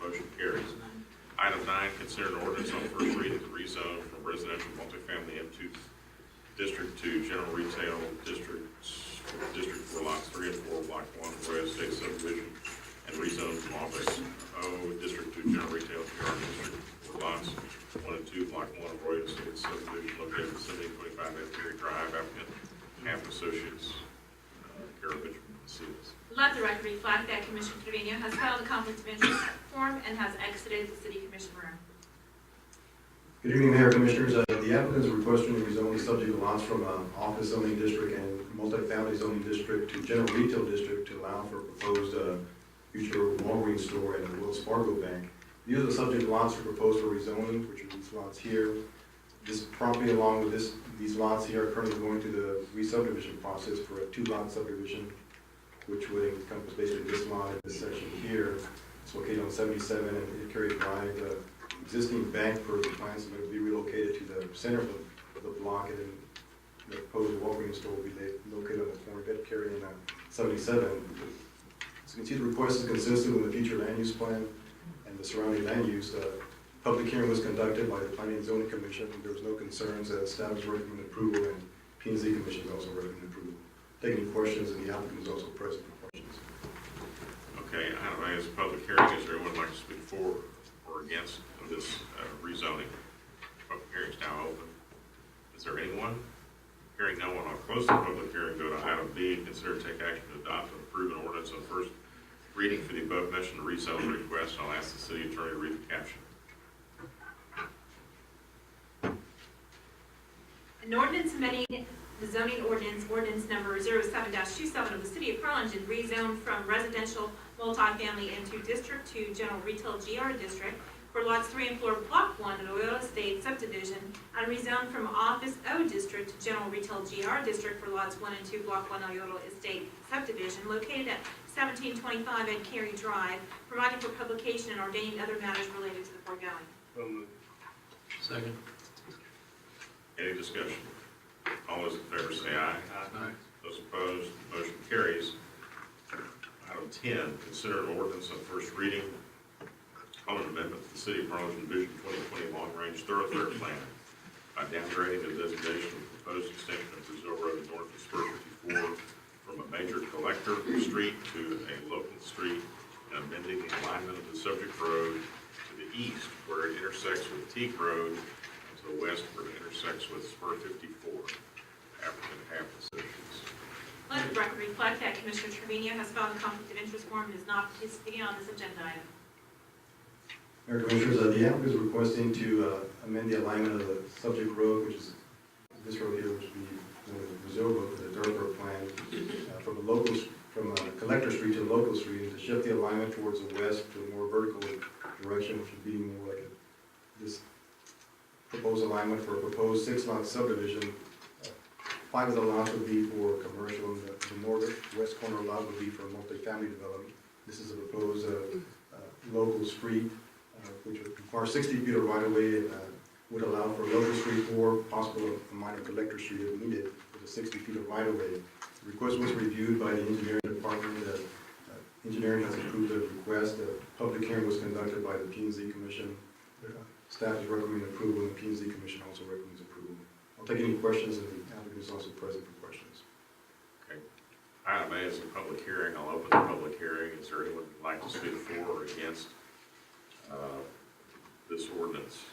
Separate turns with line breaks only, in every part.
Motion carries. Item nine, consider an ordinance on first reading to rezone from residential multifamily M2 district to general retail districts, district for lots three and four, block one, Royal State subdivision, and rezone from office O district to general retail PR district for lots one and two, block one, Royal State subdivision located at seventy twenty-five Asbury Drive, applicant Camp Associates, Carol Mitchell, Seals.
Let the record reflect that Commissioner Trevino has filed a conflict of interest form and has exited the city commission room.
Good evening, Mayor Commissioners. Uh, The applicant is requesting to rezone the subject lots from uh, office zoning district and multifamily zoning district to general retail district to allow for proposed uh, future Walgreens store and a Wells Fargo bank. These are the subject lots that are proposed for rezoning, which are these lots here. This property along with this, these lots here are currently going through the re-subdivision process for a two-lot subdivision, which would encompass basically this lot and this section here. It's located on 77 and it carries wide uh, existing bank for the clients will be relocated to the center of the, of the block, and then the proposed Walgreens store will be la- located on the corner of Bedcary and uh, 77. As you can see, the request is consistent with the future land use plan and the surrounding land use. Uh, Public hearing was conducted by the Planning and Zoning Commission, there was no concerns, uh, staff is recommending approval, and P and Z Commission is also recommending approval. Take any questions, and the applicant is also present for questions.
Okay, item A is public hearing. Is there anyone who'd like to speak for or against of this uh, rezoning? Public hearing is now open. Is there anyone? Hearing no one, I'll close the public hearing. Go to item B, consider take action to adopt and approve an ordinance on first reading for the above mentioned rezone request. I'll ask the city attorney to read the caption.
An ordinance amending the zoning ordinance, ordinance number 07-27 of the city of Harlingen, rezoned from residential multifamily M2 district to general retail GR district for lots 3 and 4, block 1 of Loyola State subdivision, and rezoned from office O district to general retail GR district for lots 1 and 2, block 1 Loyola Estate subdivision located at 1725 Ed Carey Drive, providing for publication and ordaining other matters related to the foregoing.
So moved.
Second.
Any discussion? All those in favor say aye.
Aye.
Those opposed, motion carries. Item 10, consider an ordinance on first reading on an amendment to the City of Harlingen Vision 2020 Long Range Thoroughfare Plan by downgrading the designation of proposed extension of Brazil Road north of Spur 54 from a major collector street to a local street and amending the alignment of the subject road to the east where it intersects with Teague Road and to the west where it intersects with Spur 54. Applicant have decisions.
Let the record reflect that Commissioner Trevino has filed a conflict of interest form and is not participating on this agenda item.
Mayor Commissioners, uh, the applicant is requesting to uh, amend the alignment of the subject road, which is this road here, which would be known as the Brazil Road, for the dirt road plan, uh, from a local, from a collector street to a local street, and to shift the alignment towards the west to a more vertical direction, which would be more like a- this proposed alignment for a proposed six-lot subdivision. Uh, Five of the lots would be for commercial, and the the northwest corner lot would be for multifamily development. This is a proposed uh, uh, local street uh, which would require 60 feet of right-of-way and uh, would allow for local street or possible a minor collector street if needed with a 60 feet of right-of-way. The Request was reviewed by the engineering department. The uh, engineering has approved the request. The public hearing was conducted by the P and Z Commission. Uh, Staff is recommending approval, and the P and Z Commission also recommends approval. I'll take any questions, and the applicant is also present for questions.
Item A is a public hearing. I'll open the public hearing. Is there anyone who'd like to speak for or against uh, this ordinance?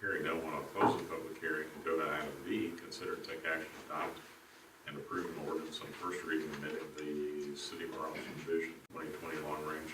Hearing no one, I'll close the public hearing and go to item B, consider and take action to adopt and approve an ordinance on first reading amending the City of Arlington Vision 2020 Long Range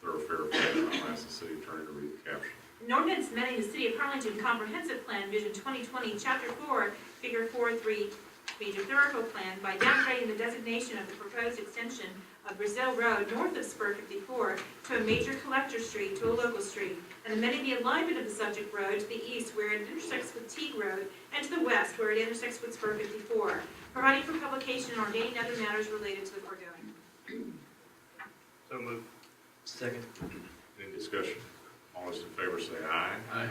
Thoroughfare Plan. I'll ask the city attorney to read the caption.
An ordinance amending the City of Harlingen Comprehensive Plan Vision 2020, Chapter 4, Figure 4-3, Major Thoroughfare Plan by downgrading the designation of the proposed extension of Brazil Road north of Spur 54 to a major collector street to a local street, and amending the alignment of the subject road to the east where it intersects with Teague Road and to the west where it intersects with Spur 54, providing for publication and ordaining other matters related to the foregoing.
So moved.
Second.
Any discussion? All those in favor say aye.
Aye.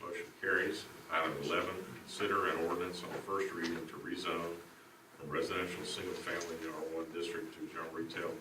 Motion carries. Item 11, consider an ordinance on first reading to rezone from residential single-family in R1 district to general retail